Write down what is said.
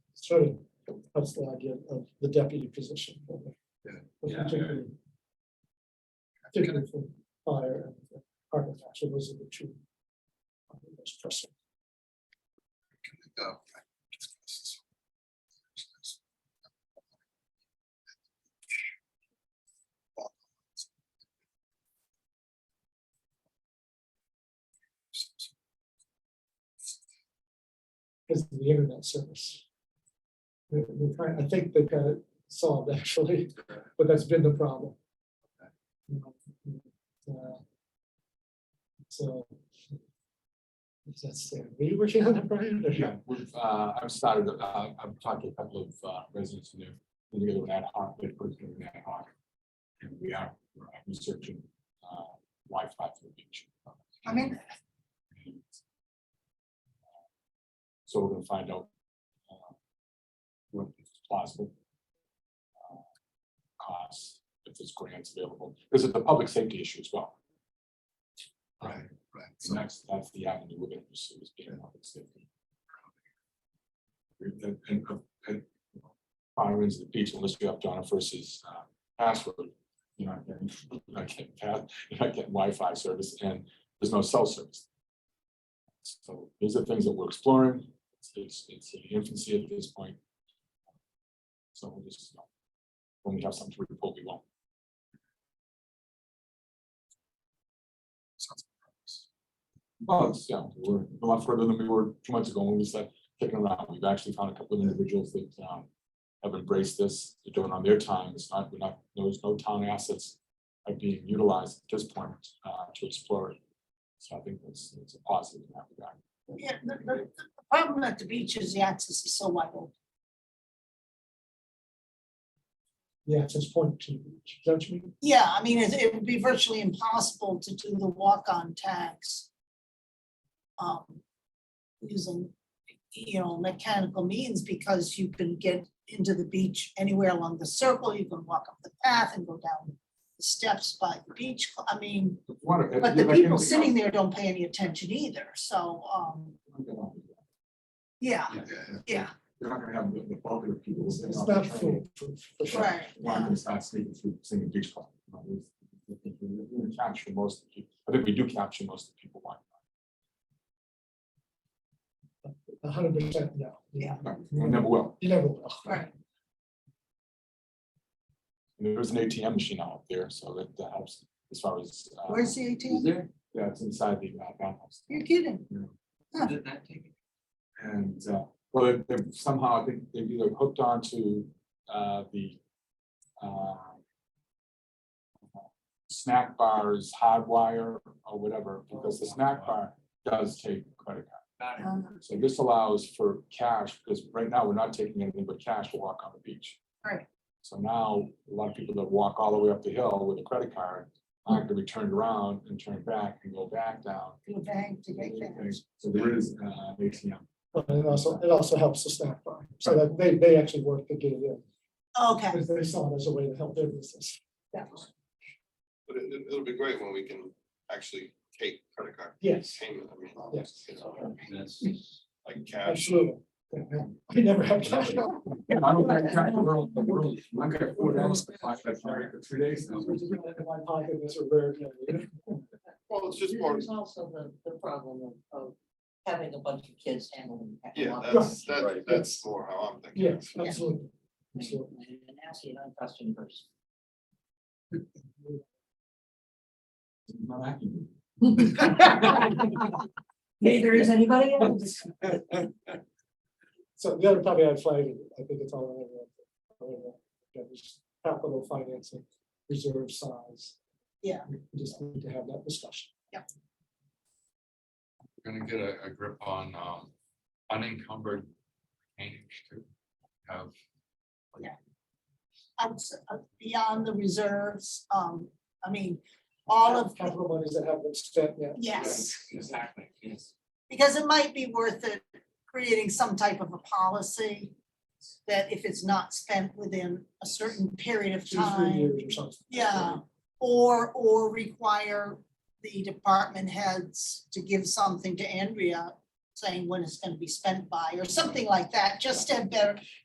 sort of helps the idea of the deputy position. for the- Yeah. for Yeah. particularly- Particularly for fire and architecture, those are the two. uh, most pressing. Oh. because of the internet service. We- we're trying- I think they've got it solved actually, but that's been the problem. You know, uh, So. That's there. Were you working on that, Brian? or- Yeah, we've, uh, I've started, uh, I've talked to a couple of uh, residents who live together with ad hoc, they're putting in ad hoc. And we are we're researching uh, Wi-Fi for the beach. I mean, So we're gonna find out. uh, What is possible. uh, Costs, if there's grants available, because it's a public safety issue as well. Right, right. So So that's, that's the avenue we're gonna pursue is being public safety. We- And, and, and. Fire is the beach unless you have Donna versus uh, password, you know, and I can't pass, you know, I get Wi-Fi service and there's no cell service. So these are things that we're exploring. It's, it's, it's in infancy at this point. So we'll just, you know, when we have something to report, we won't. Well, it's, yeah, we're a lot further than we were two months ago when we started kicking around. We've actually found a couple of individuals that um have embraced this, they're doing it on their time. It's not, we're not, there's no town assets are being utilized at this point uh to explore it. So I think that's, it's a positive in that regard. yeah, the, the, the problem at the beach is the access is so wide open. The access point to, the beach. is that what you mean? Yeah, I mean, it, it would be virtually impossible to do the walk-on tags. Um, using, you know, mechanical means because you can get into the beach anywhere along the circle, you can walk up the path and go down the steps by the beach, I mean, Water- but yeah, the like people anything sitting else. there don't pay any attention either, so, um, yeah, yeah, yeah, You're not gonna have the the bulk of the people. It's sitting it's on the not train. foolproof. for sure. right, Well, I'm yeah. gonna start sneaking through singing beach club. you know, we- we- we- we- we- we Capture most, of the people. I think we do capture most of the people. why A hundred percent, no. Yeah. not? We never will. You never will. right, Uh, And There is an ATM machine out there, so that that helps as far as. uh, where's the Is ATM? there? Yeah, it's inside the uh, bathhouse. You're kidding, Huh. Did that take? it? And, uh, well, they- they've somehow, I think they've either hooked onto uh, the uh, snack bar's hardwire or whatever, because the snack bar does take credit card. Uh, So this allows for cash, because right now we're not taking anything but cash to walk on the beach. Right. So now, a lot of people that walk all the way up the hill with a credit card, are going to be turned around and turned back and go back down. to a bank to get cash. So there is, uh, an ATM. But it also, it also helps the snack bar. So that they, they actually work to get it in. Okay, Because they saw it as a way to help their business. But it, it- it'll be great when we can actually take credit card Yes, payment, I mean. Yes. you know, That's. Like cash. absolutely. We never have cash. I don't think that's the world, the world, I'm gonna afford that, like, that for three days now. My pocket is a rare. kind of, you know? Well, it's just more, There's also the, the problem of, of having a bunch of kids handling. that yeah, lot. that's, that's, Right. that's more how I'm thinking. Yes, absolutely. And absolutely. and that's the unaccustomed person. Not happening. Neither is anybody else. So the other topic I'd flag, I think it's all in there. That is capital financing, reserve size. Yeah. We just need to have that discussion. gonna get a, a grip on, um, unencumbered change to have. outs- uh, beyond the reserves, um, I mean, all of, Capital monies that haven't been spent yet. yes. Exactly, yes. Because it might be worth it, creating some type of a policy that if it's not spent within a certain period of Two, three time. years or something. Yeah, or, or require the department heads to give something to Andrea saying when it's gonna be spent by or something like that, just to have better,